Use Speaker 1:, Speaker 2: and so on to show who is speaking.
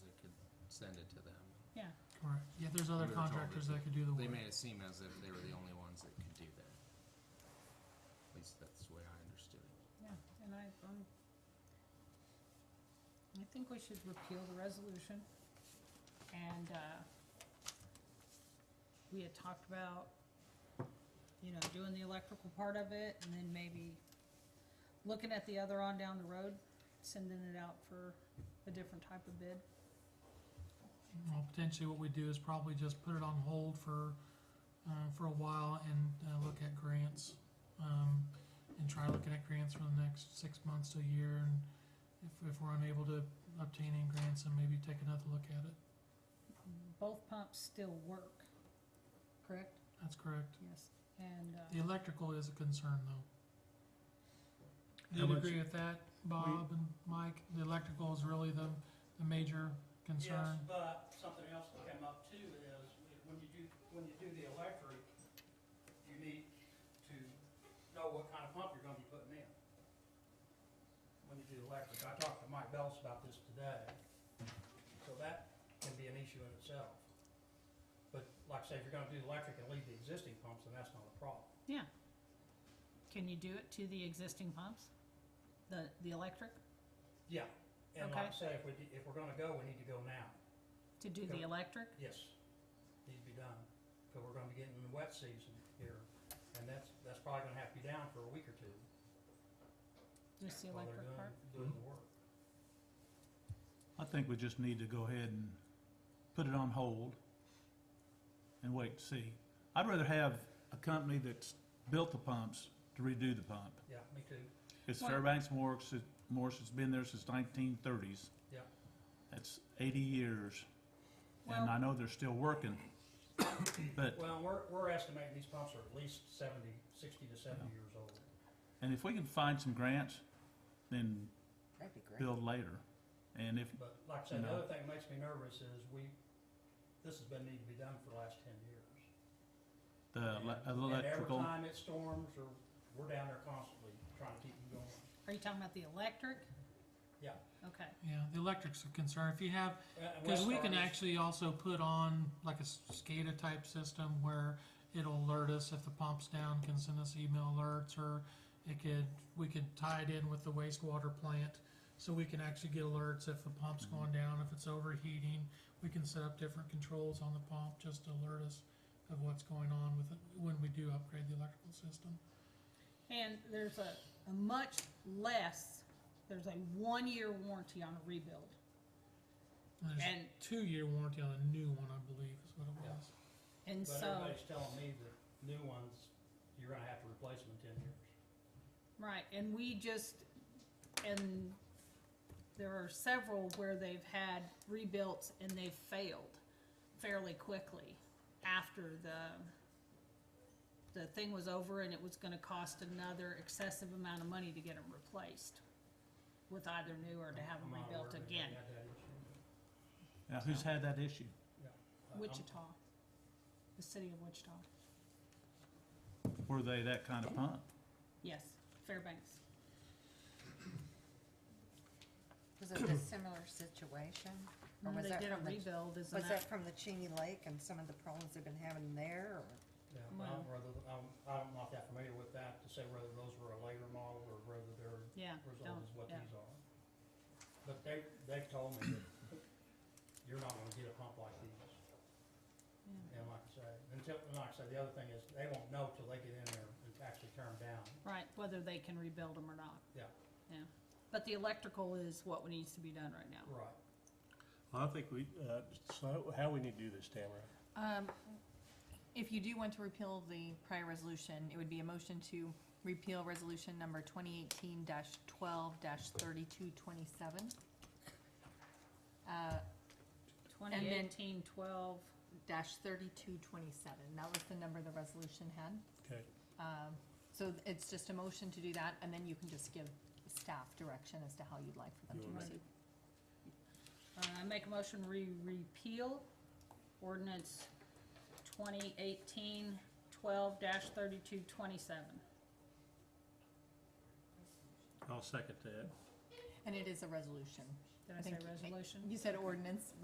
Speaker 1: send it to them.
Speaker 2: yeah.
Speaker 3: Correct. Yeah, there's other
Speaker 1: We were told
Speaker 3: contractors
Speaker 1: that
Speaker 3: that could do the
Speaker 1: They
Speaker 3: work.
Speaker 1: made it seem as if they were the only ones that could do that. At least that's the way I understood it.
Speaker 2: Yeah, and I, um, I think we should repeal the resolution. And, uh, we had talked about, you know, doing the electrical part of it and then maybe looking at the other on down the road, sending it out for a different type of bid.
Speaker 3: Well, potentially what we do is probably just put it on hold for, uh, for a while and, uh, look at grants. Um, and try looking at grants for the next six months to a year and if, if we're unable to obtain any grants, then maybe take another look at it.
Speaker 2: Both pumps still work, correct?
Speaker 3: That's correct.
Speaker 2: Yes. And,
Speaker 3: The
Speaker 2: uh,
Speaker 3: electrical is a concern though.
Speaker 4: How
Speaker 3: Do you
Speaker 4: much-
Speaker 3: agree with that, Bob and Mike? The electrical is really the, the major concern.
Speaker 5: Yes, but something else that came up too is, when you do, when you do the electric, you need to know what kind of pump you're gonna be putting in. When you do electric, I talked to Mike Bellis about this today, so that can be an issue in itself. But like I say, if you're gonna do electric and leave the existing pumps, then that's not a problem.
Speaker 2: yeah. Can you do it to the existing pumps? The, the electric?
Speaker 5: Yeah, and like I
Speaker 2: Okay.
Speaker 5: say, if we, d- if we're gonna go, we need to go now,
Speaker 2: To do the
Speaker 5: Yeah.
Speaker 2: electric?
Speaker 5: yes, needs to be done, because we're gonna be getting the wet season here, and that's, that's probably gonna have to be down for a week or two
Speaker 2: Just the
Speaker 5: while they're
Speaker 2: electric
Speaker 5: doing,
Speaker 2: part?
Speaker 5: doing
Speaker 4: Hmm?
Speaker 5: the work.
Speaker 4: I think we just need to go ahead and put it on hold and wait to see. I'd rather have a company that's built the pumps to redo the pump.
Speaker 5: Yeah, me too,
Speaker 4: It's
Speaker 2: Well-
Speaker 4: Fairbanks Morse, it- Morse has been there since nineteen thirties.
Speaker 5: Yeah.
Speaker 4: That's eighty years, and I
Speaker 2: Well-
Speaker 4: know they're still working, but,
Speaker 5: well, we're, we're estimating these pumps are at least seventy, sixty to seventy years old.
Speaker 4: and if we can find some grants, then
Speaker 6: That'd be great.
Speaker 4: build later. And if,
Speaker 5: But like I said, the
Speaker 4: No.
Speaker 5: other thing that makes me nervous is we, this has been needing to be done for the last ten years.
Speaker 4: the
Speaker 5: And-
Speaker 4: Uh, le-
Speaker 5: And every
Speaker 4: electrical,
Speaker 5: time it storms, or, we're down there constantly trying to keep them going, Uh,
Speaker 2: Are you talking about the electric?
Speaker 5: yeah.
Speaker 2: Okay,
Speaker 3: Yeah, the electric's a concern. If you have
Speaker 5: And- and
Speaker 3: Because we
Speaker 5: Westar
Speaker 3: can
Speaker 5: is-
Speaker 3: actually also put on like a SCADA type system where it'll alert us if the pump's down, can send us email alerts, or it could, we could tie it in with the wastewater plant. So we can actually get alerts if the pump's going down, if it's overheating, we can set up different controls on the pump just to alert us of what's going on with it when we do upgrade the electrical system.
Speaker 2: and there's a, a much less, there's a one-year warranty on a rebuild.
Speaker 3: And There's
Speaker 2: And,
Speaker 3: a two-year warranty on a new one, I believe, is what it
Speaker 5: Yeah.
Speaker 3: was.
Speaker 2: and
Speaker 5: But
Speaker 2: so,
Speaker 5: everybody's telling me that new ones, you're gonna have to replace them in ten years.
Speaker 2: right, and we just, and there are several where they've had rebuilt and they've failed fairly quickly after the, the thing was over and it was gonna cost another excessive amount of money to get them replaced with either new or to have them
Speaker 5: I'm not aware
Speaker 2: rebuilt
Speaker 5: of anybody
Speaker 2: again.
Speaker 5: had that issue.
Speaker 4: now who's had that issue?
Speaker 5: Uh, I'm-
Speaker 2: Wichita, the city of Wichita.
Speaker 4: Were they that kind of pump?
Speaker 2: Yes, Fairbanks.
Speaker 6: Was it a similar situation? Or was
Speaker 2: They
Speaker 6: that
Speaker 2: did a
Speaker 6: from the-
Speaker 2: rebuild, isn't
Speaker 6: Was
Speaker 2: that?
Speaker 6: that from the Cheney Lake and some of the problems they've been having there, or?
Speaker 5: Yeah,
Speaker 2: Well-
Speaker 5: I'm rather, I'm, I'm not that familiar with that to say whether those were a later model or whether they're
Speaker 2: Yeah,
Speaker 5: as old
Speaker 2: don't,
Speaker 5: as what
Speaker 2: yeah.
Speaker 5: these are. But they, they've told me that you're not gonna get a pump like these.
Speaker 2: yeah.
Speaker 5: And like I say, until, and like I say, the other thing is they won't know till they get in there and actually turn down.
Speaker 2: Right, whether they can rebuild them or not.
Speaker 5: Yeah.
Speaker 2: Yeah, but the electrical is what needs to be done right now.
Speaker 5: Right.
Speaker 7: I think we, uh, so how we need to do this, Tamara?
Speaker 8: Um, if you do want to repeal the prior resolution, it would be a motion to repeal resolution number twenty eighteen twelve thirty-two twenty-seven. Uh,
Speaker 2: Twenty eighteen twelve,
Speaker 8: dash thirty-two twenty-seven, that was the number the resolution had.
Speaker 7: Okay.
Speaker 8: Um, so it's just a motion to do that, and then you can just give staff direction as to how you'd like for them
Speaker 7: You
Speaker 8: to
Speaker 7: wanna
Speaker 8: proceed.
Speaker 2: uh, I make a motion, we repeal ordinance twenty eighteen twelve dash thirty-two twenty-seven.
Speaker 7: I'll second that.
Speaker 8: And it is a resolution.
Speaker 2: Did I say
Speaker 8: think-
Speaker 2: resolution?
Speaker 8: You said ordinance,